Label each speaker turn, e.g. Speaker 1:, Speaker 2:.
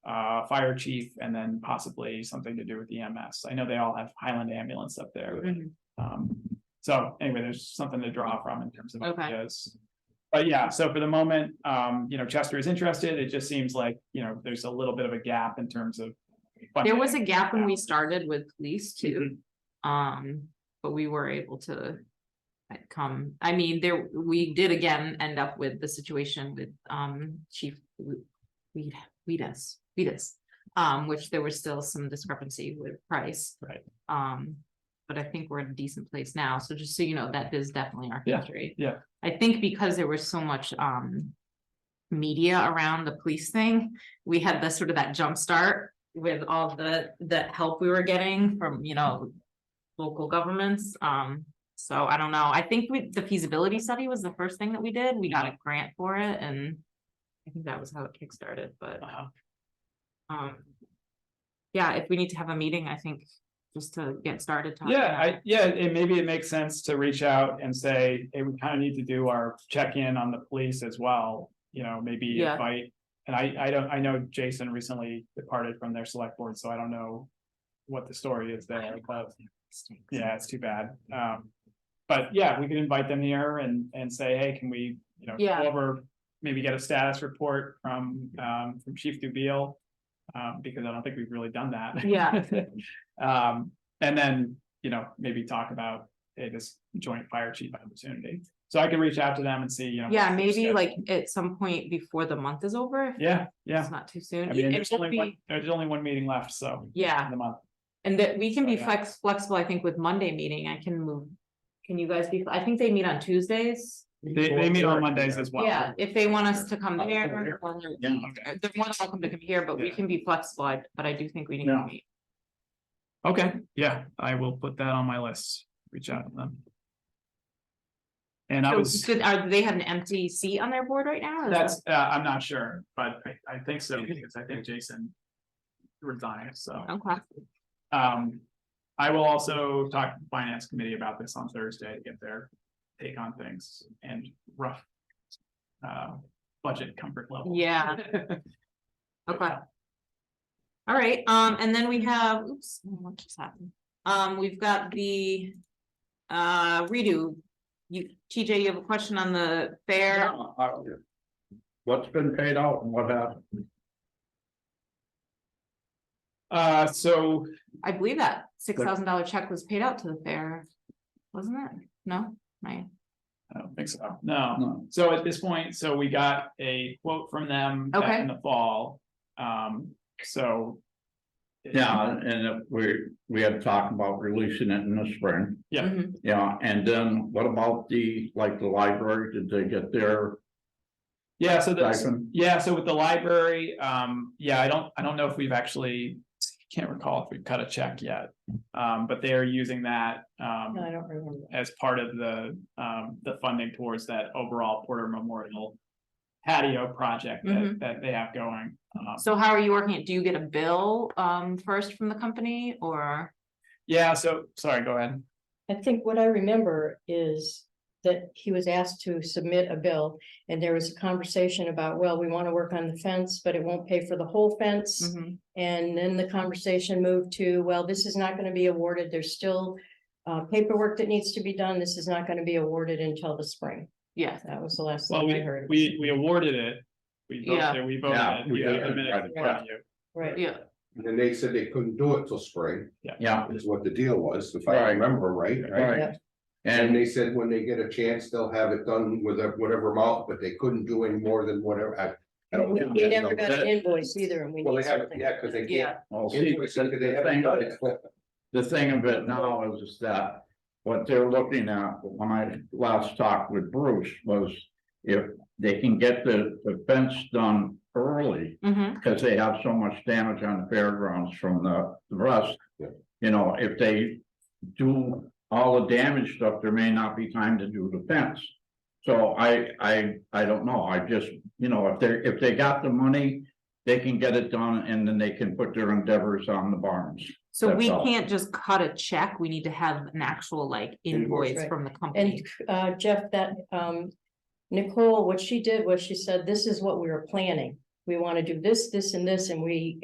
Speaker 1: uh, fire chief and then possibly something to do with EMS. I know they all have Highland ambulance up there.
Speaker 2: Mhm.
Speaker 1: Um, so anyway, there's something to draw from in terms of
Speaker 2: Okay.
Speaker 1: ideas. But yeah, so for the moment, um, you know, Chester is interested. It just seems like, you know, there's a little bit of a gap in terms of.
Speaker 2: There
Speaker 1: funding.
Speaker 2: was a gap when we started with police too, um, but we were able to. uh, Come, I mean, there, we did again end up with the situation with um Chief Weed, Weedus, Weedus. Um, which there was still some discrepancy with price.
Speaker 1: Right.
Speaker 2: Um, but I think we're in a decent place now, so just so you know, that is definitely our
Speaker 1: Yeah,
Speaker 2: country.
Speaker 1: yeah.
Speaker 2: I think because there was so much um media around the police thing, we had the sort of that jump start with all the the help we were getting from, you know, local governments. Um, so I don't know. I think we, the feasibility study was the first thing that we did. We got a grant for it and I think that was how it kickstarted, but
Speaker 1: Uh-huh.
Speaker 2: um yeah, if we need to have a meeting, I think just to get started. talking
Speaker 1: Yeah,
Speaker 2: about
Speaker 1: I,
Speaker 2: it.
Speaker 1: yeah, and maybe it makes sense to reach out and say, hey, we kind of need to do our check-in on the police as well. You know, maybe
Speaker 2: Yeah.
Speaker 1: invite, and I, I don't, I know Jason recently departed from their select board, so I don't know. What the story is there, but yeah, it's too bad. Um, but yeah, we could invite them here and, and say, hey, can we, you know,
Speaker 2: Yeah.
Speaker 1: go over. Maybe get a status report from, um, from Chief Dubiel. Um, because I don't think we've really done that.
Speaker 2: Yeah.
Speaker 1: Um, and then, you know, maybe talk about, hey, this joint fire chief opportunity. So I can reach out to them and see, you know.
Speaker 2: Yeah,
Speaker 1: what's their
Speaker 2: maybe
Speaker 1: schedule.
Speaker 2: like at some point before the month is over. if
Speaker 1: Yeah, yeah.
Speaker 2: It's not too
Speaker 1: I
Speaker 2: soon.
Speaker 1: mean,
Speaker 2: It-
Speaker 1: there's
Speaker 2: It won't
Speaker 1: only one,
Speaker 2: be,
Speaker 1: there's only one meeting left, so.
Speaker 2: Yeah.
Speaker 1: in The month.
Speaker 2: and that we can
Speaker 1: So,
Speaker 2: be
Speaker 1: yeah.
Speaker 2: flex, flexible, I think, with Monday meeting, I can move. Can you guys be, I think they meet on Tuesdays.
Speaker 1: They, they meet on Mondays as well.
Speaker 2: Yeah, if they want us to come
Speaker 1: Oh,
Speaker 3: I'll come
Speaker 2: there.
Speaker 3: here.
Speaker 2: or- or-
Speaker 3: Yeah.
Speaker 1: Okay.
Speaker 2: They're more than welcome to come here, but we
Speaker 1: Yeah.
Speaker 2: can be flexible, I- but I do think we need to
Speaker 1: No.
Speaker 2: meet.
Speaker 1: Okay, yeah, I will put that on my list, reach out to them. And I
Speaker 2: So,
Speaker 1: was,
Speaker 2: did- Are, they have an empty seat on their board right now? or is that-
Speaker 1: that's, uh, I'm not sure, but I, I think so, because I think Jason resigned, so.
Speaker 2: Okay,
Speaker 1: Um, I will also talk to the finance committee about this on Thursday to get their take on things and rough. Uh, budget comfort level.
Speaker 2: yeah, okay. All right, um, and then
Speaker 4: Mm-hmm.
Speaker 2: we have, oops, what just happened? Um, we've got the uh redo. You, TJ, you have a question on the fair?
Speaker 3: What's been paid out and what happened?
Speaker 1: Uh, so,
Speaker 2: I believe that six thousand dollar check was paid out to the fair, wasn't it? No, my,
Speaker 1: I don't think so, no, so at this point, so we got a quote from them back in the fall, um, so.
Speaker 3: Yeah, and if we, we had talked about releasing it in the spring,
Speaker 1: Yeah.
Speaker 2: Mhm.
Speaker 3: yeah, and then what about the, like, the library, did they get their
Speaker 1: Yeah, so that's,
Speaker 3: stipend?
Speaker 1: Yeah, so with the library, um, yeah, I don't, I don't know if we've actually, can't recall if we've cut a check yet. Um, but they are using that,
Speaker 2: No, I
Speaker 1: um,
Speaker 2: don't remember.
Speaker 1: as part of the, um, the funding towards that overall Porter Memorial patio project that,
Speaker 2: Mhm.
Speaker 1: that they have going. Um,
Speaker 2: So how are you working it? Do you get a bill um first from the company or?
Speaker 1: yeah, so, sorry, go ahead.
Speaker 4: I think what I remember is that he was asked to submit a bill and there was a conversation about, well, we want to work on the fence, but it won't pay for the whole
Speaker 1: Mm-hmm.
Speaker 4: fence.
Speaker 2: Mhm.
Speaker 4: And then the conversation moved to, well, this is not going to be awarded. There's still uh, paperwork that needs to be done. This is not going to be awarded until the spring.
Speaker 2: Yeah,
Speaker 4: That was the last
Speaker 1: Well,
Speaker 4: thing I
Speaker 1: we,
Speaker 4: heard.
Speaker 1: we, we awarded it. We
Speaker 2: Yeah.
Speaker 1: voted, we voted
Speaker 3: Yeah,
Speaker 1: it.
Speaker 3: we
Speaker 1: You have
Speaker 3: did.
Speaker 1: the minutes in front of you.
Speaker 4: Right.
Speaker 2: yeah,
Speaker 5: And then they said they couldn't do it till spring,
Speaker 3: Yeah,
Speaker 5: is what the deal was, if I
Speaker 3: Right.
Speaker 5: remember right.
Speaker 3: right,
Speaker 5: And
Speaker 3: and
Speaker 5: they said when they get a chance, they'll have it done with a- whatever amount, but they couldn't do any more than whatever, I, I don't.
Speaker 4: We
Speaker 5: know.
Speaker 4: we never got an invoice either and we
Speaker 5: Well,
Speaker 4: need
Speaker 5: they haven't,
Speaker 4: something.
Speaker 5: yeah, because they can't.
Speaker 2: yeah,
Speaker 3: well, see,
Speaker 5: Invoice,
Speaker 3: the
Speaker 5: 'cause they haven't
Speaker 3: thing,
Speaker 5: done it.
Speaker 3: the thing of it now is that what they're looking at, when I last talked with Bruce, was if they can get the, the fence done early,
Speaker 2: hmm
Speaker 3: because they have so much damage on the fairgrounds from the the rust.
Speaker 5: Yeah.
Speaker 3: You know, if they do all the damage stuff, there may not be time to do the fence. So I, I, I don't know, I just, you know, if they're, if they got the money, they can get it done and then they can put their endeavors on the barns.
Speaker 2: so we
Speaker 3: That's all.
Speaker 2: can't just cut a check, we need to have an actual like
Speaker 5: Invoice,
Speaker 2: invoice
Speaker 4: right.
Speaker 2: from the company.
Speaker 4: And uh, Jeff, that um, Nicole, what she did was she said, this is what we were planning. We want to do this, this and this, and we